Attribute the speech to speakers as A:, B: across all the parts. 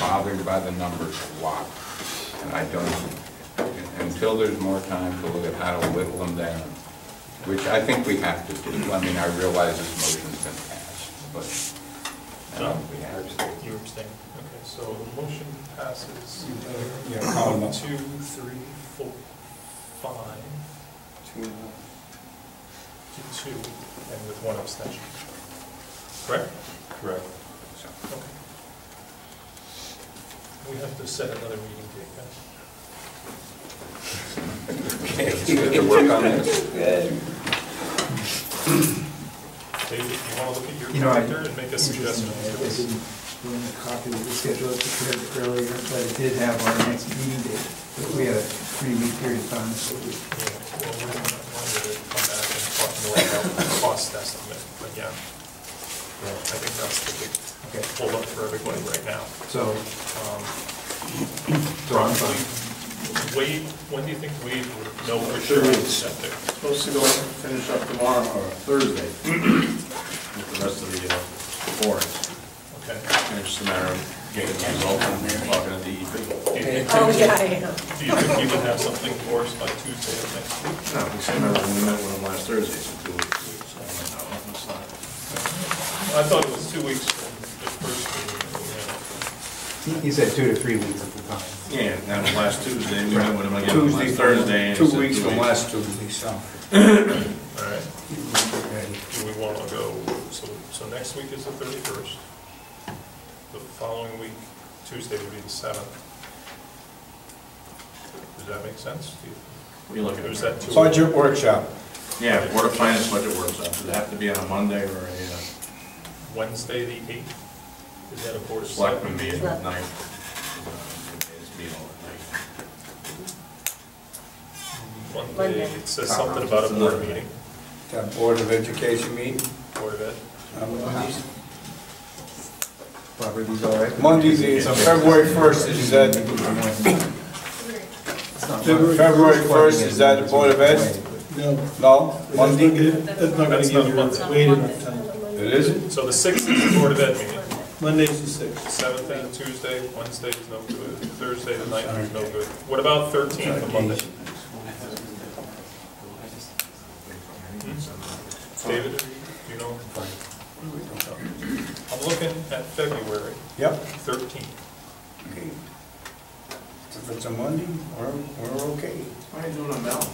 A: bothered by the numbers a lot, and I don't, until there's more time to look at how to whittle them down, which I think we have to do. I mean, I realize this motion's been passed, but um, we have to.
B: You abstain, okay, so the motion passes.
C: Yeah, Colin, that's-
B: Two, three, four, five, to two, and with one abstention. Correct?
C: Correct.
A: so.
B: Okay. We have to set another meeting date, guys.
A: Okay, we have to work on this.
B: David, you want to look at your
D: You know, I-
B: calendar and make a suggestion?
D: Interesting, I I didn't bring a copy of the schedule I prepared earlier, but it did have our next meeting date. But we had a three-week period of time, so we,
B: Yeah, Well, we're going to come back and talk more about the cost estimate, but yeah. I think that's the big
D: Okay.
B: hold up for everybody right now.
D: so,
B: Um,
D: so I'm fine.
B: Wade, when do you think Wade would know for
E: Sure.
B: sure what's out there?
E: Supposed to go finish up tomorrow or Thursday with the rest of the uh, boards.
B: Okay.
E: And it's just a matter of getting the results and talking to E DEP.
B: Do you think-
F: Oh, yeah, I am.
B: Do you think you would have something for us by Tuesday of next week?
E: No, we said remember when we met with them last Thursday, so two weeks. So I'm like, no, that's not-
B: I thought it was two weeks from the first meeting.
D: He- He said two to three weeks at the time.
E: Yeah, that was last Tuesday, we met with them again on
C: Tuesday,
E: last Thursday.
C: Thursday,
E: and
C: two
E: said
C: weeks from last Tuesday, so.
B: All right,
D: Right.
B: do we want to go, so, so next week is the thirty-first. The following week, Tuesday would be the seventh. Does that make sense? to you?
E: What are you looking at?
B: Or is that too-
C: Budget workshop,
E: Yeah, Board of Finance budget workshop, does it have to be on a uh, Monday or a
B: Wednesday, the eighth? Is that a board
E: uh,
B: of
E: selectman
B: selectmen?
E: meeting at night? It's meeting at night.
B: Monday,
F: Monday.
B: it says something about a board meeting,
C: that Board of Education meeting.
B: Board of Ed.
C: Um,
D: Bob, are these all right?
C: Monday, the- uh, February 1st, is uh, that,
D: It's not-
C: February 1st, is that the Board of Ed?
G: No,
C: No, Monday?
G: that's not gonna
B: That's
G: give
B: not
G: you
B: Monday.
G: wait enough time.
C: It isn't?
B: So the sixth is the Board of Ed meeting,
G: Monday's the sixth.
B: seventh is Tuesday, Wednesday is no good, Thursday the ninth is no good. What about thirteenth, the Monday? Hmm? David, do you know? I'm looking at February
C: Yep.
B: thirteenth.
C: Okay. If it's a Monday, we're, we're okay.
E: Why are you doing a Mel?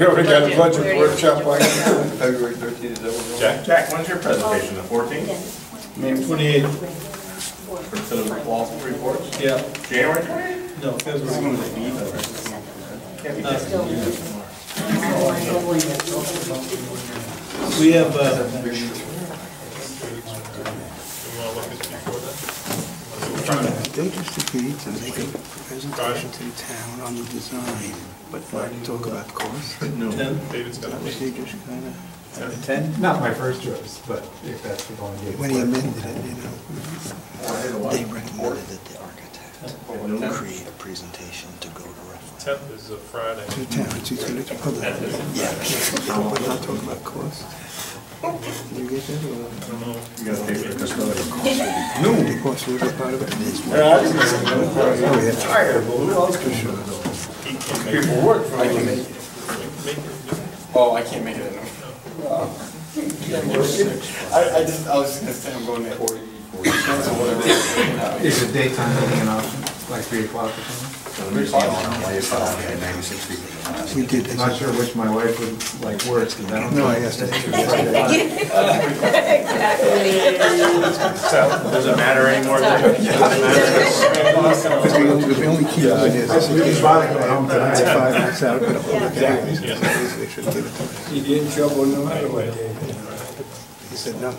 C: You already got a budget
F: Budget.
C: workshop on February 13th, is that what we're
B: Jack?
E: Jack, when's your presentation, the fourteenth?
G: Twenty-eighth,
E: To the wall reports?
G: yeah,
E: January twenty?
G: no, February.
E: Can't be Uh, that.
G: We have, uh,
B: Do you want to look at before that?
H: They just agreed to make a presentation to the town on the design, but not talk about cost.
G: ten,
B: David's got a
H: They
B: meeting.
H: just kind of,
D: Ten? Not my first choice, but if that's the only date.
H: when he amended it, you know, they recommended that the architect create a presentation to go to reference.
B: Tenth is a Friday.
H: To the town, to the to the public. Yeah, yeah, but not talk about cost. You get that,
B: I
H: or?
B: don't know.
E: You gotta pay for the custodian.
H: The cost was a part of it. This one.
C: doing?
H: Oh, yeah.
C: Tired, but who else can show it?
B: He can make,
C: People work for me.
B: make your meeting.
I: Oh, I can't make it in. I, I just, I was just gonna say I'm going to Hawaii. That's what it is. No.
D: Is the daytime meeting an option, like three o'clock or something?
H: We did.
D: I'm Not sure which my wife would like worse, because I don't.
H: No, I asked that.
F: Exactly.
E: Does it matter anymore? Does it matter?
H: The only key thing is, this is-
D: It's bothering me. I'm
H: I
D: tonight.
H: had five minutes out, but all the guys,
B: Yeah.
H: they should give it to me.
C: You get in trouble no matter what, David.
H: He said, no,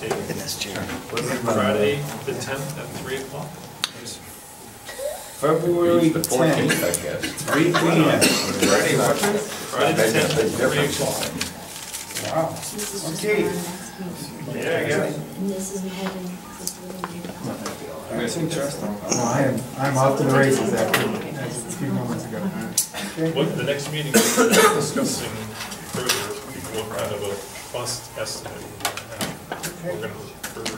B: David,
H: and that's Jerry.
B: Friday, the tenth at three o'clock.
C: February
A: It's the
C: 10th,
A: 14th, I guess.
C: 3 p.m.
B: Friday, the tenth at three o'clock.
C: Wow, okay.
B: Yeah, I guess.
C: That's interesting.
D: No, I am, I'm off to the races after, a few moments ago.
B: What, the next meeting, we're discussing further what kind of a cost estimate we have. We're gonna further